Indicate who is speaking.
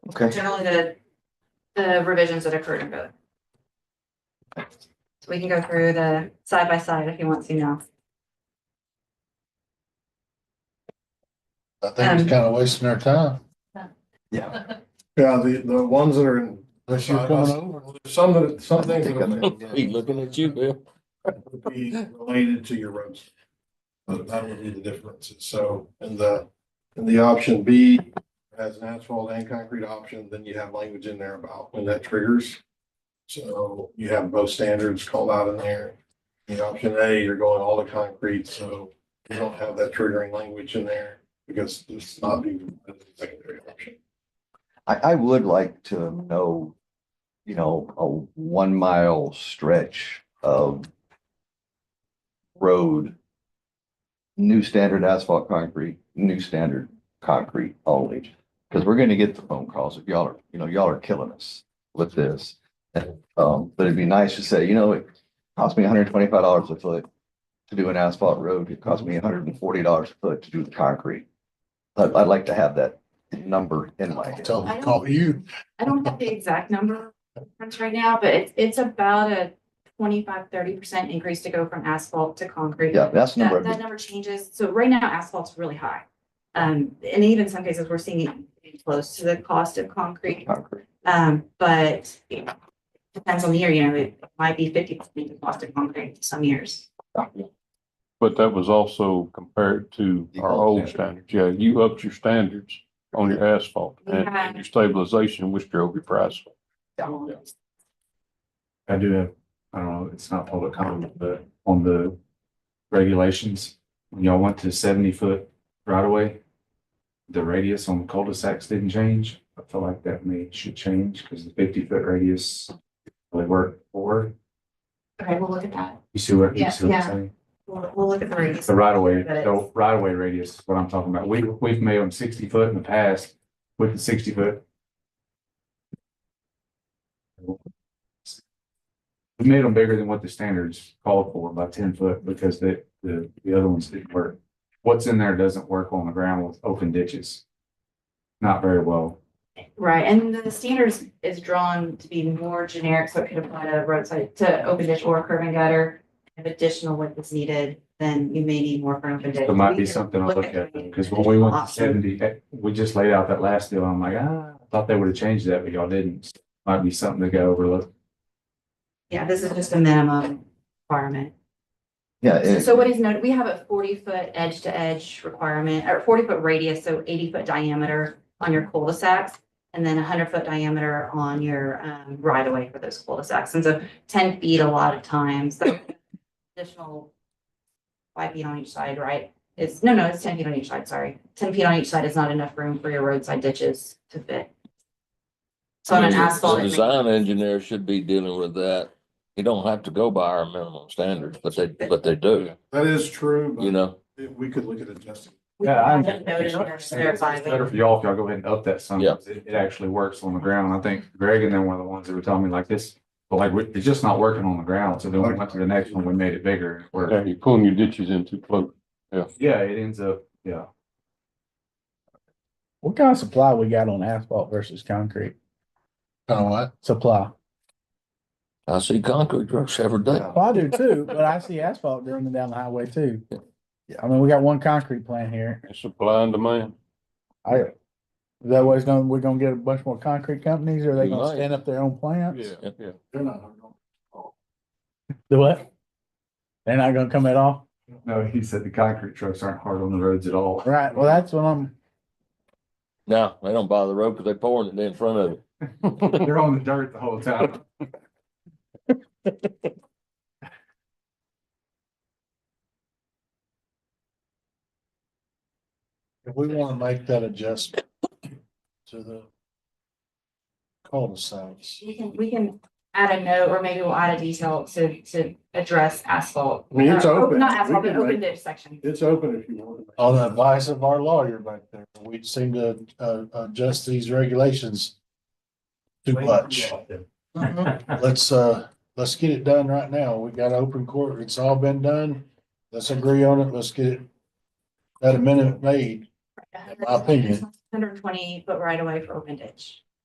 Speaker 1: Okay,
Speaker 2: generally the, the revisions that occurred in both. So we can go through the side by side if you want to now.
Speaker 3: I think it's
Speaker 2: Um,
Speaker 3: kind of wasting our time.
Speaker 1: yeah.
Speaker 4: Yeah, the, the ones that are in, uh,
Speaker 3: Unless
Speaker 4: you're coming some that, some things that are-
Speaker 5: He looking at you, Bill.
Speaker 4: would be related to your roads. But that would be the difference. So in the, in the option B, as an asphalt and concrete option, then you have language in there about when that triggers. So you have both standards called out in there. In option A, you're going all to concrete, so you don't have that triggering language in there because it's not even a secondary option.
Speaker 1: I, I would like to know, you know, a one mile stretch of road, new standard asphalt concrete, new standard concrete only. Because we're gonna get the phone calls if y'all are, you know, y'all are killing us with this. And, Um, but it'd be nice to say, you know, it cost me hundred and twenty-five dollars a foot to do an asphalt road. It cost me hundred and forty dollars a foot to do the concrete. I'd, I'd like to have that number in my head.
Speaker 3: Tell them, to call you.
Speaker 2: I don't have the exact number in front right now, but it's, it's about a 25, 30 percent increase to go from asphalt to concrete.
Speaker 1: Yeah, that's the number.
Speaker 2: That,
Speaker 1: I'd
Speaker 2: that
Speaker 1: be-
Speaker 2: number changes. So right now asphalt's really high. Um, and even in some cases, we're seeing it getting close to the cost of concrete.
Speaker 1: concrete.
Speaker 2: Um, but it depends on the year, you know, it might be fifty percent the cost of concrete some years.
Speaker 5: But that was also compared to
Speaker 1: The
Speaker 5: our
Speaker 1: old
Speaker 5: old standards. Yeah, you upped your standards on your asphalt and and your stabilization, which drove your price.
Speaker 1: Yeah.
Speaker 6: I do have, I don't know, it's not public comment, but on the regulations, when y'all went to seventy foot right away, the radius on the cul-de-sacs didn't change. I feel like that may, should change because the fifty foot radius really worked for.
Speaker 2: Okay, we'll look at that.
Speaker 6: You see what, you
Speaker 2: Yeah,
Speaker 6: see what I'm
Speaker 2: yeah.
Speaker 6: saying?
Speaker 2: We'll, we'll look at the radius.
Speaker 6: The right away,
Speaker 2: But it's-
Speaker 6: the right away radius is what I'm talking about. We, we've made them sixty foot in the past with the sixty foot. We made them bigger than what the standards called for by ten foot because the, the, the other ones didn't work. What's in there doesn't work on the ground with open ditches. Not very well.
Speaker 2: Right, and the standards is drawn to be more generic, so it could apply to roadside, to open ditch or curb and gutter. If additional width is needed, then you may need more for an open ditch.
Speaker 6: There might
Speaker 2: We
Speaker 6: be
Speaker 2: can
Speaker 6: something to look at,
Speaker 2: doing
Speaker 6: because when we went
Speaker 2: additional
Speaker 6: to
Speaker 2: options.
Speaker 6: seventy, eh, we just laid out that last deal, I'm like, ah, I thought they would have changed that, but y'all didn't. Might be something to go overlook.
Speaker 2: Yeah, this is just a minimum requirement.
Speaker 1: Yeah,
Speaker 2: So-
Speaker 1: it-
Speaker 2: So what is noted, we have a forty foot edge to edge requirement, or forty foot radius, so eighty foot diameter on your cul-de-sacs. And then hundred foot diameter on your um right of way for those cul-de-sacs, and so ten feet a lot of times, so Additional. Five feet on each side, right? It's, no, no, it's ten feet on each side, sorry, ten feet on each side is not enough room for your roadside ditches to fit. So on an asphalt.
Speaker 5: The
Speaker 2: it may-
Speaker 5: Design engineer should be dealing with that. You don't have to go by our minimum standards, but they, but they do,
Speaker 4: That is true, but
Speaker 5: you know?
Speaker 4: we could look at adjusting.
Speaker 2: We
Speaker 6: Yeah, I-
Speaker 2: have it noted or verified,
Speaker 6: It's Better for y'all if y'all go ahead and up that some,
Speaker 5: Yeah.
Speaker 6: it, it actually works on the ground. I think Greg and then one of the ones that were telling me like this. But like, we- it's just not working on the ground, so then we went to the next one, we made it bigger. and it worked.
Speaker 5: You're pulling your ditches in too close.
Speaker 6: Yeah, it ends up, yeah.
Speaker 7: What kind of supply we got on asphalt versus concrete
Speaker 3: Kind of what?
Speaker 7: supply?
Speaker 5: I see concrete trucks every day.
Speaker 7: Well, I do too, but I see asphalt running down the highway too.
Speaker 1: Yeah.
Speaker 7: I mean, we got one concrete plant here.
Speaker 5: It's supply and demand.
Speaker 7: I, is that way it's gonna, we're gonna get a bunch more concrete companies or they gonna
Speaker 5: Right.
Speaker 7: stand up their own plants?
Speaker 5: yeah.
Speaker 4: They're not hard on.
Speaker 7: Do what? They're not gonna come at all?
Speaker 6: No, he said the concrete trucks aren't hard on the roads at all.
Speaker 7: Right, well, that's what I'm,
Speaker 5: No, they don't buy the road because they pouring it in front of it.
Speaker 6: They're on the dirt the whole time.
Speaker 3: If we want to make that adjustment to the cul-de-sacs.
Speaker 2: We can, we can add a note, or maybe we'll add a detail to, to address asphalt.
Speaker 4: I mean, it's
Speaker 2: Uh,
Speaker 4: open.
Speaker 2: Not asphalt,
Speaker 4: We
Speaker 2: but
Speaker 4: can
Speaker 2: open
Speaker 4: make-
Speaker 2: ditch section.
Speaker 4: It's open if you want.
Speaker 3: On the advice of our lawyer back there, we seem to uh, adjust these regulations too much. Let's, uh, let's get it done right now. We got open court. It's all been done. Let's agree on it. Let's get it that amendment made. my opinion.
Speaker 2: Hundred twenty foot right away for open ditch.